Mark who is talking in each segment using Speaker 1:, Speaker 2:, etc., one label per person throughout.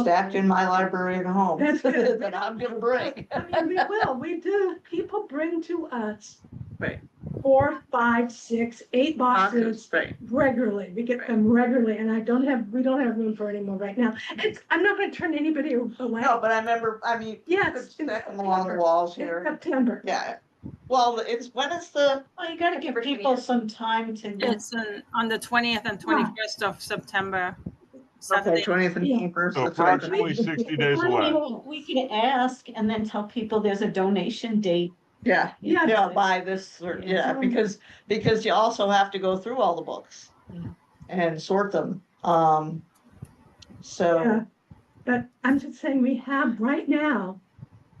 Speaker 1: stacked in my library at home
Speaker 2: That's good.
Speaker 1: that I'm gonna bring.
Speaker 2: I mean, we will, we do, people bring to us.
Speaker 3: Right.
Speaker 2: Four, five, six, eight boxes
Speaker 3: boxes, right?
Speaker 2: regularly, we get them regularly, and I don't have, we don't have room for any more right now. It's, I'm not gonna turn anybody away.
Speaker 1: No, but I remember, I mean, you
Speaker 2: Yes.
Speaker 1: could stack them along the walls here.
Speaker 2: September.
Speaker 1: Yeah. Well, it's, when is the,
Speaker 4: Well, you gotta give people some time to get,
Speaker 5: It's on, on the twentieth and twenty-first of September.
Speaker 1: okay,
Speaker 5: Saturday.
Speaker 1: twentieth and
Speaker 2: Yeah.
Speaker 1: twenty-first.
Speaker 6: So approximately sixty days away.
Speaker 4: Well, we can ask and then tell people there's a donation date.
Speaker 1: Yeah,
Speaker 2: Yeah.
Speaker 1: yeah, by this, or- yeah,
Speaker 2: Yeah.
Speaker 1: because, because you also have to go through all the books
Speaker 4: Yeah.
Speaker 1: and sort them. Um,
Speaker 2: Yeah.
Speaker 1: so,
Speaker 2: But I'm just saying, we have, right now,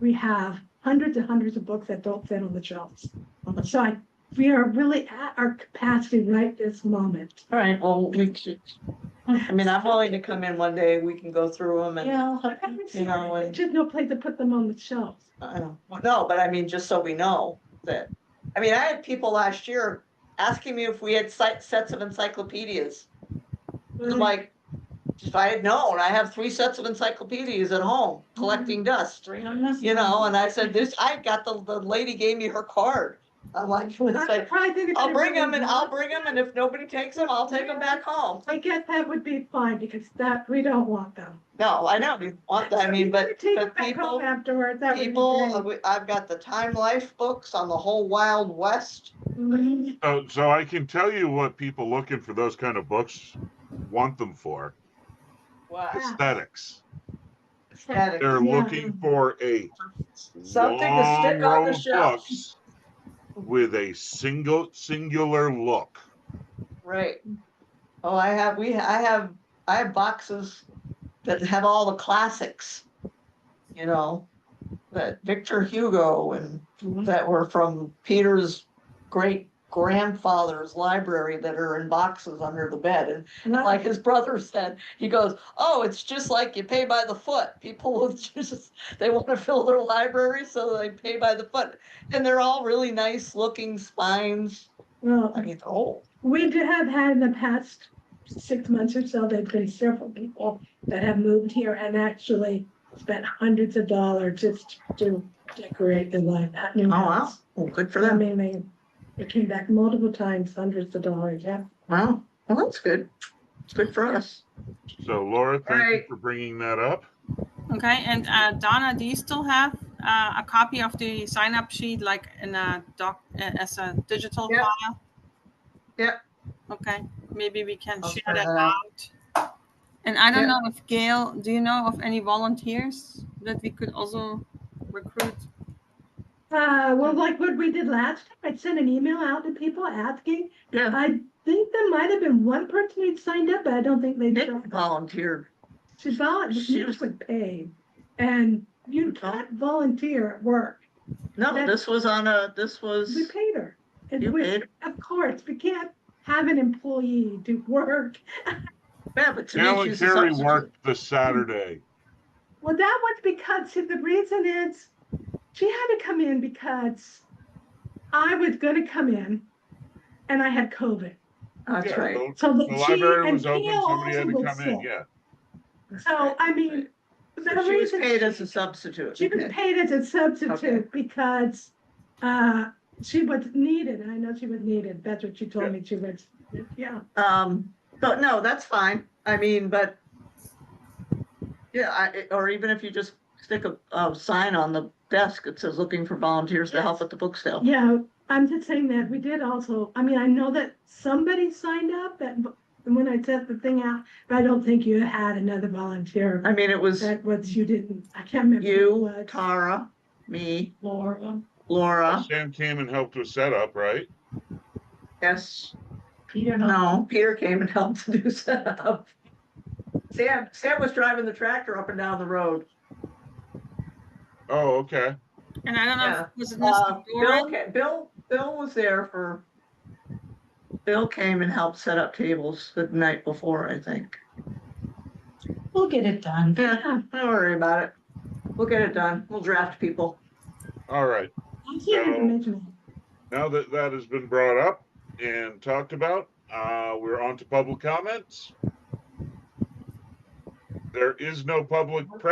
Speaker 2: we have hundreds and hundreds of books that don't fit on the shelves.
Speaker 1: Mhm.
Speaker 2: So I, we are really at our capacity right this moment.
Speaker 1: all right, well, we should, I mean, I'm willing to come in one day, we can go through them and,
Speaker 4: Yeah. I'll help you.
Speaker 1: you know, and,
Speaker 2: Just no place to put them on the shelves.
Speaker 1: I don't- no, but I mean, just so we know that, I mean, I had people last year asking me if we had site, sets of encyclopedias.
Speaker 2: Mm-hmm.
Speaker 1: I'm like, if I had known, I have three sets of encyclopedias at home collecting
Speaker 2: Mm-hmm.
Speaker 1: dust.
Speaker 4: Bring on this.
Speaker 1: you know, and I said, this, I got the, the lady gave me her card. I'm like, it's like, I'll
Speaker 2: I'll
Speaker 1: bring them and I'll bring them and if nobody takes them, I'll take them back home.
Speaker 2: I guess that would be fine because that, we don't want them.
Speaker 1: No, I know, you want that, I mean, but,
Speaker 2: Take
Speaker 1: but
Speaker 2: it back
Speaker 1: people,
Speaker 2: home afterwards, that would be
Speaker 1: people, uh,
Speaker 2: great.
Speaker 1: we- I've got the Time Life books on the whole Wild West.
Speaker 2: Mhm.
Speaker 6: So, so I can tell you what people looking for those kind of books want them for
Speaker 1: Wow.
Speaker 6: aesthetics.
Speaker 1: Aesthetic.
Speaker 6: They're
Speaker 2: Yeah.
Speaker 6: looking for a
Speaker 1: Something to
Speaker 6: long
Speaker 1: stick on
Speaker 6: row
Speaker 1: the
Speaker 6: of
Speaker 1: shelf,
Speaker 6: books with a single singular look.
Speaker 1: right? Oh, I have, we, I have, I have boxes that have all the classics, you know? That Victor Hugo and that were from Peter's great grandfather's library that are in boxes under the bed. And
Speaker 2: And I-
Speaker 1: like his brother said, he goes, Oh, it's just like you pay by the foot. People will just, they want to fill their library, so they pay by the foot. And they're all really nice looking spines.
Speaker 2: Well,
Speaker 1: I mean, oh,
Speaker 2: We do have had in the past six months or so, there've been several people that have moved here and actually spent hundreds of dollars just to decorate the line, that new
Speaker 1: Oh, wow.
Speaker 2: house.
Speaker 1: well, good for
Speaker 2: I
Speaker 1: them.
Speaker 2: mean, they, they came back multiple times, hundreds of dollars, yeah.
Speaker 1: Wow. Well, that's good. It's good for us.
Speaker 6: So Laura, thank you
Speaker 1: Alright.
Speaker 6: for bringing that up.
Speaker 5: Okay, and uh, Donna, do you still have uh, a copy of the sign-up sheet, like in a doc, uh, as a digital
Speaker 1: Yep.
Speaker 5: file?
Speaker 1: Yep.
Speaker 5: Okay, maybe we can
Speaker 1: I'll
Speaker 5: share
Speaker 1: send
Speaker 5: that
Speaker 1: that out.
Speaker 5: out. And I don't
Speaker 1: Yeah.
Speaker 5: know if Gail, do you know of any volunteers that we could also recruit?
Speaker 2: Uh, well, like what we did last time, I sent an email out to people asking.
Speaker 1: Yeah.
Speaker 2: I think there might have been one person who'd signed up, but I don't think they.
Speaker 1: Nick volunteered.
Speaker 2: She volunteered,
Speaker 1: She
Speaker 2: she was paid, and you can't volunteer at work.
Speaker 1: No,
Speaker 2: That-
Speaker 1: this was on a, this was,
Speaker 2: We paid her. And
Speaker 1: you
Speaker 2: we-
Speaker 1: paid
Speaker 2: Of course, we can't have an employee do work.
Speaker 1: Yeah, but to me,
Speaker 6: Alan
Speaker 1: she's a
Speaker 6: Carey
Speaker 1: substitute.
Speaker 6: worked the Saturday.
Speaker 1: Mm,
Speaker 2: Well, that was because, see, the reason is, she had to come in because I was gonna come in and I had COVID.
Speaker 1: That's
Speaker 6: Yeah,
Speaker 1: right.
Speaker 6: the-
Speaker 2: So
Speaker 6: The
Speaker 2: that she
Speaker 6: library
Speaker 2: and
Speaker 6: was open,
Speaker 2: Gail
Speaker 6: somebody had
Speaker 2: also
Speaker 6: to
Speaker 2: was
Speaker 6: come in,
Speaker 2: sick.
Speaker 6: yeah.
Speaker 2: So, I mean, the
Speaker 1: So She was
Speaker 2: reason.
Speaker 1: paid as a substitute.
Speaker 2: She was
Speaker 1: Okay.
Speaker 2: paid as a
Speaker 1: Okay.
Speaker 2: substitute because, uh, she was needed, and I know she was needed, that's what she
Speaker 6: Yeah.
Speaker 2: told me, she was, yeah.
Speaker 1: Um, but no, that's fine. I mean, but yeah, I, or even if you just stick a, a sign on the desk that says looking for volunteers to help at the book sale.
Speaker 2: Yeah, I'm just saying that we did also, I mean, I know that somebody signed up that, when I sent the thing out, but I don't think you had another volunteer.
Speaker 1: I mean, it was
Speaker 2: That was, you didn't, I can't remember. who
Speaker 1: you,
Speaker 2: it was.
Speaker 1: Tara, me,
Speaker 4: Laura.
Speaker 1: Laura.
Speaker 6: Sam came and helped with setup, right?
Speaker 1: Yes,
Speaker 4: Peter and I.
Speaker 1: no, Peter came and helped to do setup. Sam, Sam was driving the tractor up and down the road.
Speaker 6: Oh, okay.
Speaker 5: And I don't know,
Speaker 1: Yeah.
Speaker 5: if- was it
Speaker 1: Uh,
Speaker 5: Mr.
Speaker 1: Bill,
Speaker 5: Doran?
Speaker 1: ca- Bill, Bill was there for, Bill came and helped set up tables the night before, I think.
Speaker 4: We'll get it done.
Speaker 1: Yeah, don't worry about it. We'll get it done. We'll draft people.
Speaker 6: All right.
Speaker 2: I can't
Speaker 6: So-
Speaker 2: remember.
Speaker 6: Now that that has been brought up and talked about, uh, we're on to public comments. there is no public press